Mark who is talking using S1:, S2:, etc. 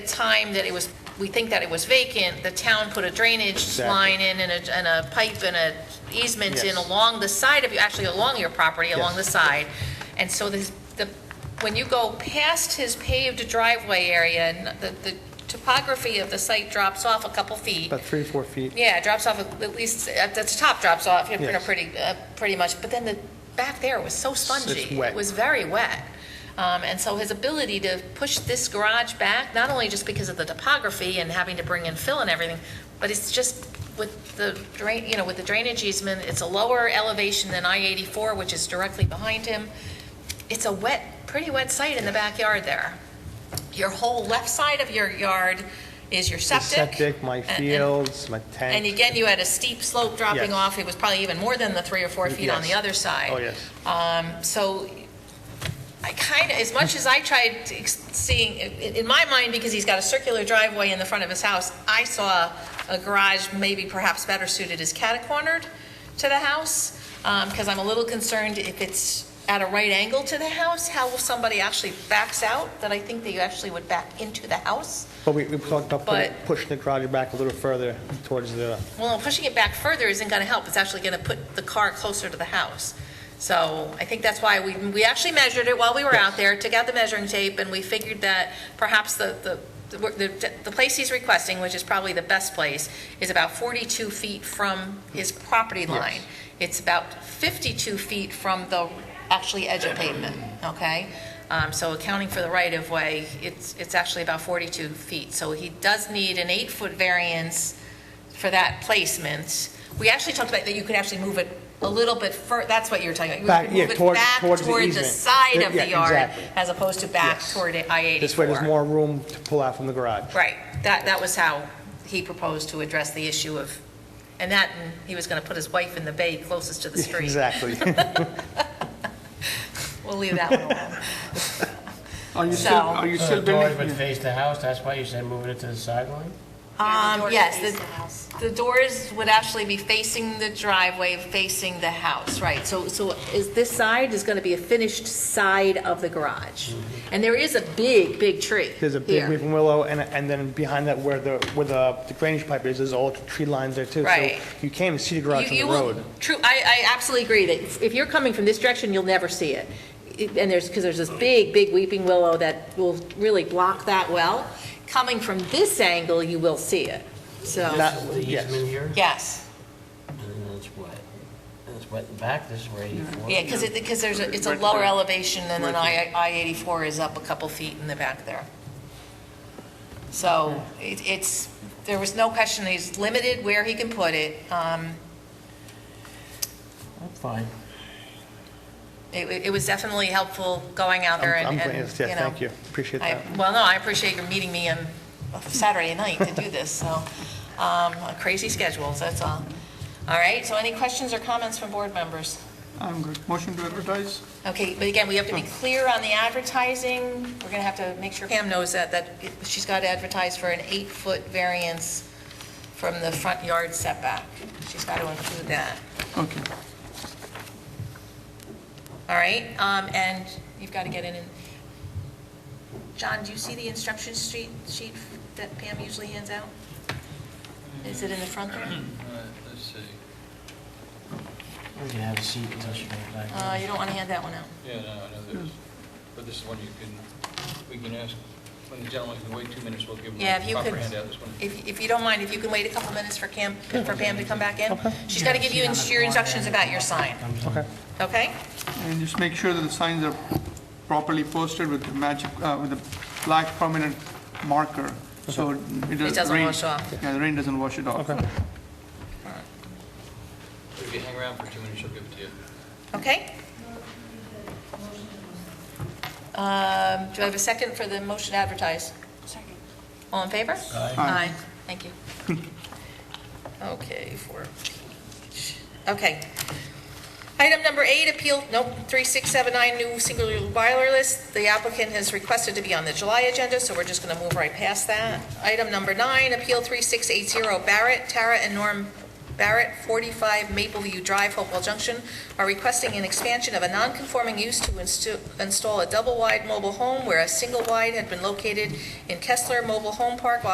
S1: time that it was, we think that it was vacant, the town put a drainage
S2: Exactly.
S1: line in and a, and a pipe and a easement in
S2: Yes.
S1: along the side of, you actually along your property, along
S2: Yes.
S1: the side. And so this, the, when you go past his paved driveway area and the, the topography of the site drops off a couple feet.
S2: about three, four feet.
S1: Yeah, it drops off, at least, at the top drops off, you know,
S2: Yes.
S1: pretty, uh, pretty much, but then the, back there was so spongy.
S2: wet.
S1: It was very wet. Um, And so his ability to push this garage back, not only just because of the topography and having to bring in fill and everything, but it's just with the drain, you know, with the drainage easement, it's a lower elevation than I-84, which is directly behind him. It's a wet, pretty wet site in the backyard there. Your whole left side of your yard is your
S2: The
S1: septic.
S2: Septic, my
S1: and- and-
S2: fields, my
S1: and
S2: tank.
S1: again, you had a steep slope dropping
S2: Yes.
S1: off. It was probably even more than the three or four feet on the
S2: Yes.
S1: other side.
S2: Oh, yes.
S1: So I kind of, as much as I tried to ex- seeing, in in my mind, because he's got a circular driveway in the front of his house, I saw a garage maybe perhaps better suited as catacornered to the house, because I'm a little concerned if it's at a right angle to the house, how will somebody actually backs out, that I think that you actually would back into the house.
S2: But we, we talked about putting-
S1: But-
S2: pushing the garage back a little further towards the,
S1: Well, pushing it back further isn't going to help. It's actually going to put the car closer to the house. So I think that's why we, we actually measured it while we were out there, took out the measuring tape, and we figured that perhaps the, the, the, the place he's requesting, which is probably the best place, is about 42 feet from his property line. It's about 52 feet from the actually edge of pavement, okay? Um, So accounting for the right-of-way, it's, it's actually about 42 feet. So he does need an eight-foot variance for that placement. We actually talked about that you could actually move it a little bit fur, that's what you were talking about. You
S2: Back-
S1: could
S2: yeah,
S1: move it
S2: toward-
S1: back
S2: towards the
S1: toward the
S2: easement.
S1: side of
S2: Yeah,
S1: the yard
S2: exactly.
S1: as opposed to back
S2: Yes.
S1: toward I-84.
S2: this way there's more room to pull out from the garage.
S1: Right, that, that was how he proposed to address the issue of, and that, and he was going to put his wife in the bay closest to the street.
S2: Exactly.
S1: We'll leave that one alone.
S3: Are you still,
S1: So-
S3: are you
S4: So
S3: still
S4: the door would
S3: building?
S4: face the house, that's why you said moving it to the sideline?
S1: Um, yes, the, the doors would actually be facing the driveway, facing the house, right? So, so is this side is gonna be a finished side of the garage? And there is a big, big tree
S2: Mm-hmm. There's a big
S1: here.
S2: weeping willow, and, and then behind that where the, where the the drainage pipe is, there's all tree lines there too.
S1: Right.
S2: So you can't even see the
S1: You
S2: garage from
S1: you
S2: the
S1: will-
S2: road.
S1: True, I, I absolutely agree that if- if you're coming from this direction, you'll never see it. It- And there's, because there's this big, big weeping willow that will really block that well. Coming from this angle, you will see it, so.
S2: Not-
S4: This is The
S2: yes.
S4: easement here,
S1: Yes,
S4: and then it's wet. And it's wet in back, this is where 84.
S1: Mm-hmm. yeah, because it, because there's, a- it's a lower elevation and then I, I eighty-four is up a couple feet in the back there. So it, it's, there was no question, he's limited where he can put it. Um,
S4: I'm fine.
S1: it, it was definitely helpful going out there
S2: I'm- I'm
S1: and,
S2: glad-
S1: and,
S2: yes,
S1: you know.
S2: yes, Thank you, appreciate
S1: I,
S2: that.
S1: well, no, I appreciate your meeting me on Saturday night to do this, so, um, crazy schedules, that's all. All right, so any questions or comments from board members?
S3: I'm good. Motion to advertise?
S1: Okay, but again, we have to be clear on the advertising. We're going to have to make sure Pam knows that, that it- she's got to advertise for an eight-foot variance from the front yard setback. She's got to include that.
S3: Okay.
S1: All right, um, and you've got to get in and, John, do you see the instruction sheet, sheet that Pam usually hands out? Is it in the front there?
S5: Let's see,
S4: We can have a seat until she comes back.
S1: Uh, you don't want to hand that one out.
S5: yeah, no, I know there's,
S1: Hmm.
S5: but this is one you can, we can ask, when the gentleman can wait two minutes, we'll give him
S1: Yeah, if
S5: a
S1: you
S5: proper
S1: could-
S5: handout, this one.
S1: If, if you don't mind, if you can wait a couple minutes for Cam, for Pam to come back in? She's got to give you ins- your instructions about your sign,
S2: Okay.
S1: okay?
S3: And just make sure that the signs are properly posted with the magic, uh, with the black prominent marker, so it doesn't...
S1: It doesn't
S3: rain-
S1: wash off.
S3: Yeah, the rain doesn't wash it off.
S2: Okay.
S5: If you hang around for two minutes, she'll give it to you.
S1: Okay? Um, Do I have a second for the motion to advertise? Second. All in favor? Aye. Aye, thank you. Okay, four. each. Okay. Item number eight, appeal, nope, 3679, new singular boiler list. The applicant has requested to be on the July agenda, so we're just going to move right past that. Item number nine, appeal 3680, Barrett, Tara, and Norm Barrett, 45 Mapleview Drive, Hopewell Junction, are requesting an expansion of a non-conforming use to instu- install a double-wide mobile home where a single-wide had been located in Kessler Mobile Home Park while